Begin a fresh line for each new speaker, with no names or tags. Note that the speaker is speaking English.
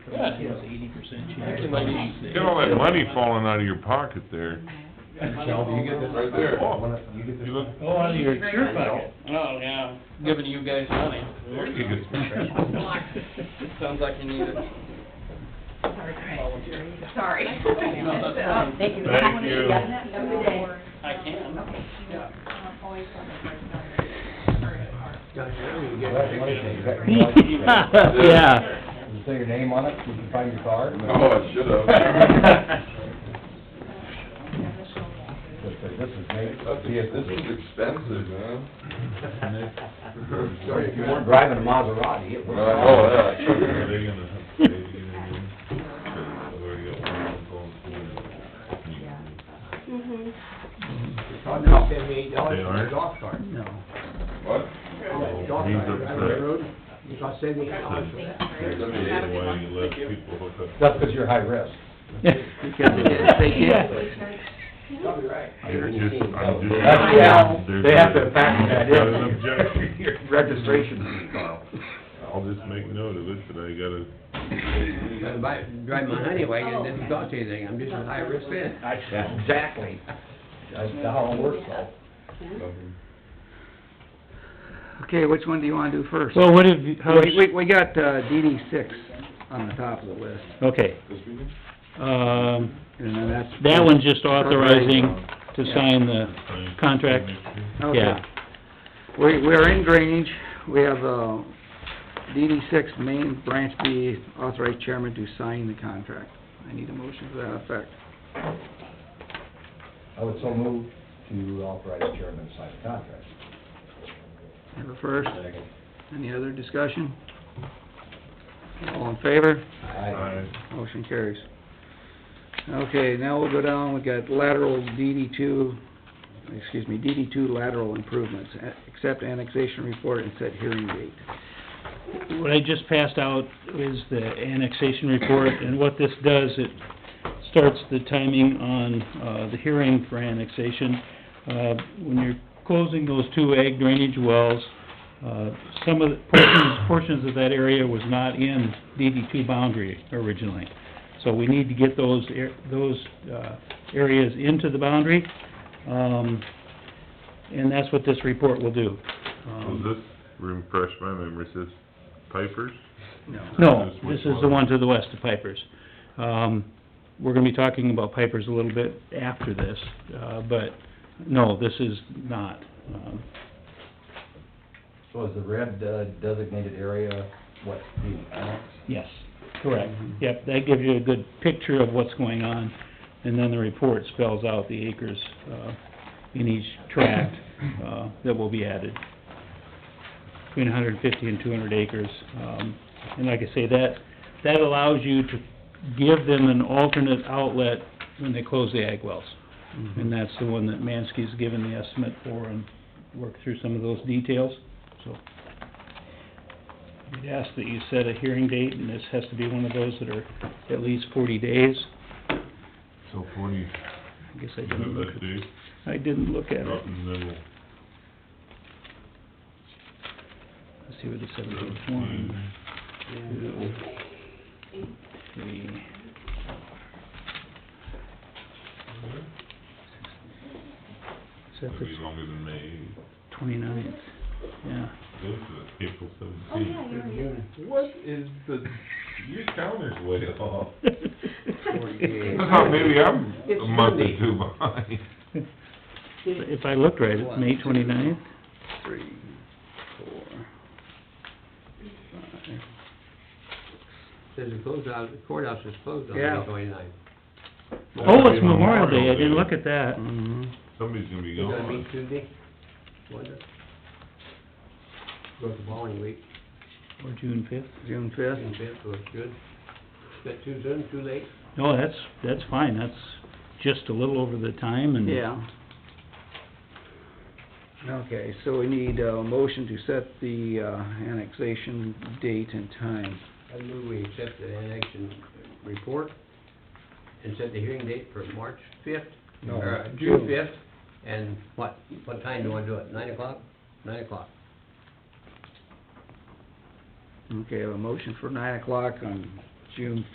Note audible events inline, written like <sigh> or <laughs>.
I think it was eighty percent chance.
Get all that money falling out of your pocket there.
Shelby, you get this?
Right there.
One of- Oh, You get this?
You look,
Oh, out of
<laughs>
your, your pocket.
Oh, yeah, giving you guys money.
there you go.
Sounds like you need it.
Sorry.
No, that's fine. <laughs>
Thank you.
Thank you.
Every day.
I can.
Oh,
That's one thing, is that-
<laughs>
Yeah.
Does it say your name on it, you can find your card?
Oh, I should've.
This is- this is made,
That's ex- This is expensive, man.
Sorry, if you weren't driving a Maserati, it
Well, I
would.
know that.
Are
they gonna have to pay to get in?
I'll drop them eight dollars
They
for my
aren't?
golf cart.
No.
What?
That Golf
He's
cart, right on the
upset.
road, Oh, you got seventy eight dollars for that.
Why you let people hook up?
That's because you're high risk.
Because <laughs> they can't.
Probably right.
I'm just, I'm just.
<laughs> That's, yeah, they have to factor that
There's an
in.
objection.
<laughs> Your Registration, Carl.
I'll just make note of it, but I gotta,
I buy, drive my honey wagon, it doesn't cost anything, I'm just a high risk man.
Yeah, Exactly. That's how it works though.
Okay, which one do you wanna do first? Oh,
Well, what have, you- how's,
We, we, we got, uh, DD six on the top of the list,
okay, um,
and then that's.
that one's just authorizing to sign the contract,
Okay.
yeah.
We, we are in drainage, we have, uh, DD six, main branch B, authorized chairman to sign the contract. I need a motion for that effect.
I would so move to authorize the chairman to sign the contract.
Have a first, any other discussion? All in favor?
Aye.
Motion carries. Okay, now we'll go down, we've got lateral DD two, excuse me, DD two lateral improvements. A- Accept annexation report and set hearing date.
What I just passed out is the annexation report, and what this does, it starts the timing on, uh, the hearing for annexation. Uh, when you're closing those two ag drainage wells, uh, some of the portions, portions of that area was not in DD two boundary originally. So we need to get those, ar- those, uh, areas into the boundary, um, and that's what this report will do.
Was
Um,
this, refresh my memory, says Piper's?
no, this is the one to the west of Piper's. Um, we're gonna be talking about Piper's a little bit after this, uh, but, no, this is not. Um,
So is the red uh, designated area, what, the annex?
Yes, correct. Yep, that gives you a good picture of what's going on, and then the report spells out the acres, uh, in each tract, uh, that will be added. Between hundred and fifty and two hundred acres. Um, and like I say, that, that allows you to give them an alternate outlet when they close the ag wells. And that's the one that Mansky's given the estimate for and worked through some of those details, so. We'd ask that you set a hearing date, and this has to be one of those that are at least forty days.
So forty,
I guess I
you
didn't
have
look,
that date,
I didn't look at
drop
it.
in the middle.
Let's see what the seventeenth one, two, three. Is that
That'd be
the
longer than May,
twenty-ninth? Yeah.
this is April
Oh,
seventeenth. What is the, your calendar's way off. I thought maybe I'm a month or two behind.
If I looked right, it's May twenty-ninth?
Three, four, five.
Says the closeout, the courthouse is closed on
Yeah.
May twenty-ninth.
Oh, it's Memorial Day, I didn't look at that.
Mhm.
Somebody's gonna be
Is that
gone.
meet Tuesday? Wonder. Go to bowling week,
Or June fifth?
June
in
fifth,
bed, so it's good. Is that too soon, too late?
No, Oh, that's, that's fine, that's just a little over the time and...
yeah. Okay, so we need a motion to set the, uh, annexation date and time.
I move we accept the annexation report and set the hearing date for March fifth,
No.
or June fifth, and what, what time do you wanna do it, nine o'clock? Nine o'clock.
Okay, I have a motion for nine o'clock on June